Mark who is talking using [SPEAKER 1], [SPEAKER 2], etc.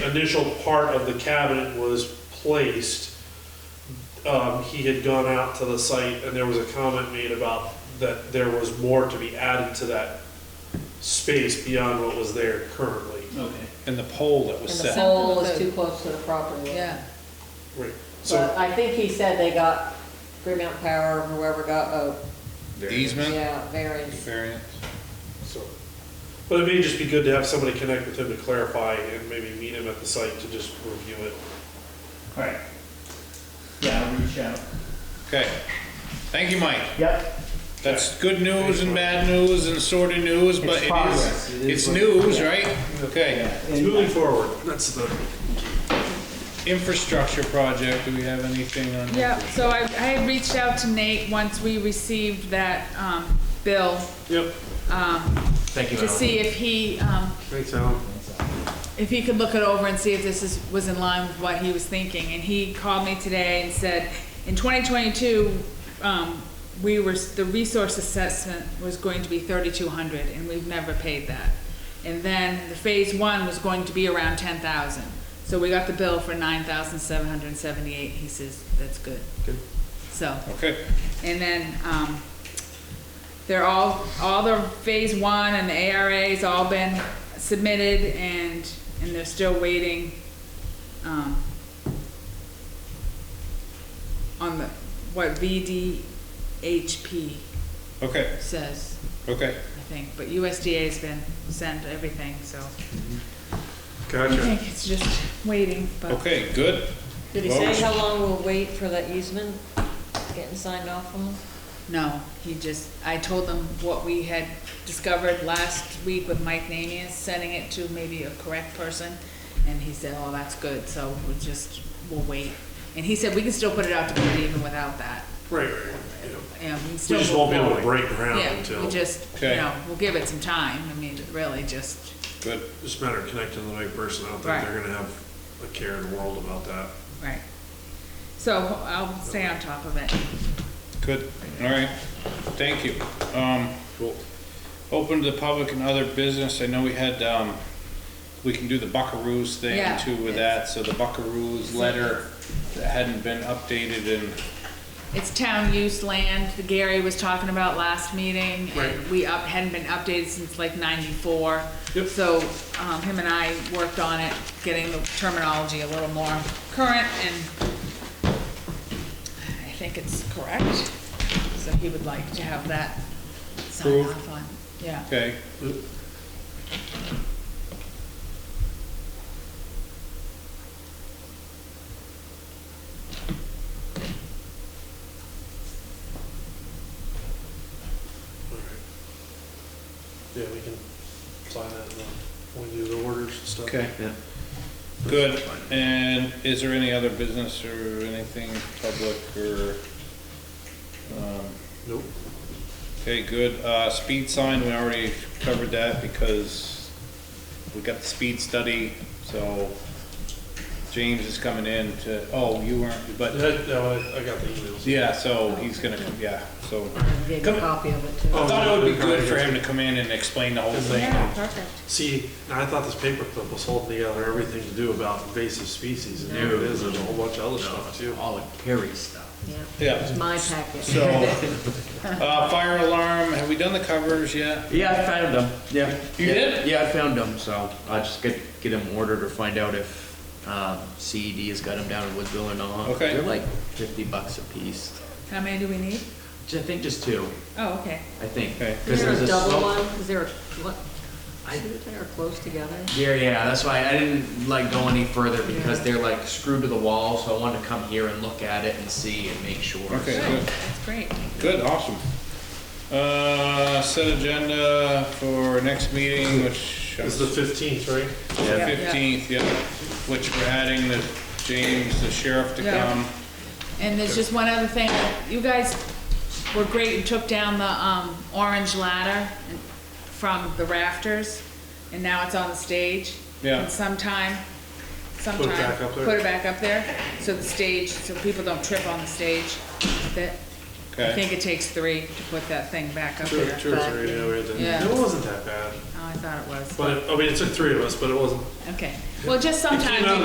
[SPEAKER 1] initial part of the cabinet was placed, um, he had gone out to the site and there was a comment made about that there was more to be added to that space beyond what was there currently.
[SPEAKER 2] Okay.
[SPEAKER 3] And the pole that was
[SPEAKER 4] And the
[SPEAKER 3] set.
[SPEAKER 4] pole
[SPEAKER 5] Something
[SPEAKER 4] is
[SPEAKER 5] with
[SPEAKER 4] too close to the property. line.
[SPEAKER 5] Yeah,
[SPEAKER 1] Right, so,
[SPEAKER 4] But I think he said they got Fremont Power, whoever got, oh,
[SPEAKER 3] Easement?
[SPEAKER 4] yeah, variance.
[SPEAKER 3] Variance.
[SPEAKER 1] so, but it may just be good to have somebody connect with him to clarify and maybe meet him at the site to just review it.
[SPEAKER 2] All right. Yeah, I'll reach out.
[SPEAKER 3] Okay. Thank you, Mike.
[SPEAKER 2] Yep.
[SPEAKER 3] That's good news and bad news and sort of news, but
[SPEAKER 2] It's
[SPEAKER 3] it
[SPEAKER 2] progress. It
[SPEAKER 3] is,
[SPEAKER 2] is
[SPEAKER 3] it's
[SPEAKER 2] what-
[SPEAKER 3] news,
[SPEAKER 2] yeah.
[SPEAKER 3] right? Okay.
[SPEAKER 1] It's
[SPEAKER 2] And
[SPEAKER 1] moving forward, that's the,
[SPEAKER 3] Infrastructure project, do we have anything on?
[SPEAKER 5] yeah, so I, I had reached out to Nate once we received that, um, bill,
[SPEAKER 1] yep.
[SPEAKER 5] um,
[SPEAKER 6] Thank you,
[SPEAKER 5] to
[SPEAKER 6] Alan.
[SPEAKER 5] see if he, um,
[SPEAKER 1] Thanks, Alan.
[SPEAKER 5] if he could look it over and see if this is, was in line with what he was thinking. And he called me today and said, in 2022, um, we were, the resource assessment was going to be 3,200, and we've never paid that. And then the phase one was going to be around 10,000. So we got the bill for 9,778. He says, that's good.
[SPEAKER 1] Good.
[SPEAKER 5] So.
[SPEAKER 3] Okay,
[SPEAKER 5] And then, um, they're all, all the phase one and the ARA's all been submitted and, and they're still waiting, um, on the, what VDHP
[SPEAKER 3] okay,
[SPEAKER 5] says,
[SPEAKER 3] okay.
[SPEAKER 5] I think, but USDA's been sent everything, so I
[SPEAKER 1] Gotcha.
[SPEAKER 5] think it's just waiting, but
[SPEAKER 3] Okay, good.
[SPEAKER 4] Did he say how long we'll wait for that easement getting signed off on?
[SPEAKER 5] no, he just, I told them what we had discovered last week with Mike Namias, sending it to maybe a correct person, and he said, oh, that's good, so we'll just, we'll wait. And he said, we can still put it out to bid even without that,
[SPEAKER 1] Right, right, right, yeah.
[SPEAKER 5] and we can
[SPEAKER 1] We
[SPEAKER 5] still.
[SPEAKER 1] just won't be able to
[SPEAKER 5] move forward.
[SPEAKER 1] break ground
[SPEAKER 5] Yeah,
[SPEAKER 1] until,
[SPEAKER 5] we
[SPEAKER 1] just
[SPEAKER 5] just, you
[SPEAKER 3] Okay.
[SPEAKER 5] know, we'll give it some time, I mean, really just,
[SPEAKER 3] Good.
[SPEAKER 1] a matter of connecting the right person. I don't think
[SPEAKER 5] Right.
[SPEAKER 1] they're gonna have a care in the world about that.
[SPEAKER 5] right. So I'll stay on top of it.
[SPEAKER 3] Good, all right, thank you. Um, we'll open to the public and other business, I know we had, um, we can do the Buckaroo's thing
[SPEAKER 5] Yeah.
[SPEAKER 3] too with that, so the Buckaroo's letter that hadn't been updated in,
[SPEAKER 5] It's town use land that Gary was talking about last meeting. and
[SPEAKER 1] Right.
[SPEAKER 5] We up, hadn't been updated since like ninety-four.
[SPEAKER 1] Yep.
[SPEAKER 5] So, um, him and I worked on it, getting the terminology a little more current and I think it's correct. So he would like to have that signed
[SPEAKER 3] Approved.
[SPEAKER 5] off on, yeah.
[SPEAKER 3] okay?
[SPEAKER 1] Yeah, we can sign that and, uh, when we do the orders and stuff.
[SPEAKER 3] Okay.
[SPEAKER 6] Yeah.
[SPEAKER 3] Good, and is there any other business or anything public or, um,
[SPEAKER 1] Nope.
[SPEAKER 3] okay, good. Uh, speed sign, we already covered that because we got the speed study, so James is coming in to, oh, you weren't, but,
[SPEAKER 1] That- no, I, I got the emails.
[SPEAKER 3] yeah, so he's gonna, come. yeah, so.
[SPEAKER 4] I gave you
[SPEAKER 3] Come- Oh.
[SPEAKER 4] a copy of it too.
[SPEAKER 3] I thought it would be good for him to come in and explain the whole thing.
[SPEAKER 5] perfect.
[SPEAKER 1] See, and I thought this paperclip was holding together everything to do about invasive species, and here it is, there's a whole bunch of other stuff too.
[SPEAKER 6] All the Carrie stuff.
[SPEAKER 4] Yeah,
[SPEAKER 3] Yeah,
[SPEAKER 4] it's my packet.
[SPEAKER 3] so, uh, fire alarm, have we done the covers yet?
[SPEAKER 6] Yeah, I found them, yeah.
[SPEAKER 3] You
[SPEAKER 6] Yeah,
[SPEAKER 3] did?
[SPEAKER 6] Yeah, I found them, so I'll just get, get them ordered or find out if, um, CED has got them down in Woodville or not.
[SPEAKER 3] Okay.
[SPEAKER 6] They're like fifty bucks a piece,
[SPEAKER 5] How many do we need?
[SPEAKER 6] Ju- I think just two,
[SPEAKER 5] Oh, okay.
[SPEAKER 6] I think.
[SPEAKER 3] Okay.
[SPEAKER 6] Because
[SPEAKER 4] Is there
[SPEAKER 6] there's
[SPEAKER 4] a double
[SPEAKER 6] slope-
[SPEAKER 4] one? Is there a, what,
[SPEAKER 6] I-
[SPEAKER 4] two that are close together?
[SPEAKER 6] Yeah, yeah, that's why I didn't like go any further because they're like screwed to the wall, so I wanted to come here and look at it and see and make sure.
[SPEAKER 3] Okay,
[SPEAKER 6] so.
[SPEAKER 3] good.
[SPEAKER 5] Good, That's great.
[SPEAKER 3] Good, awesome. Uh, set agenda for next meeting, which uh,
[SPEAKER 1] It's the fifteenth, right?
[SPEAKER 6] Yeah.
[SPEAKER 3] fifteenth, yeah, which we're adding the James, the sheriff to
[SPEAKER 5] Yeah.
[SPEAKER 3] come.
[SPEAKER 5] And there's just one other thing, you guys were great, you took down the, um, orange ladder and- from the rafters, and now it's on the stage.
[SPEAKER 3] Yeah.
[SPEAKER 5] And sometime, sometime.
[SPEAKER 1] back up there?
[SPEAKER 5] Put it back up there, so the stage, so people don't trip on the stage. That, I
[SPEAKER 3] Okay.
[SPEAKER 5] think it takes three to put that thing back up
[SPEAKER 1] Two,
[SPEAKER 5] there.
[SPEAKER 1] two or three, yeah, we had to,
[SPEAKER 5] Yeah.
[SPEAKER 1] it wasn't that bad,
[SPEAKER 5] Oh, I thought it was,
[SPEAKER 1] but, it- I mean, it took three of us, but it wasn't
[SPEAKER 5] okay.
[SPEAKER 1] Well, just sometimes.
[SPEAKER 5] out
[SPEAKER 1] you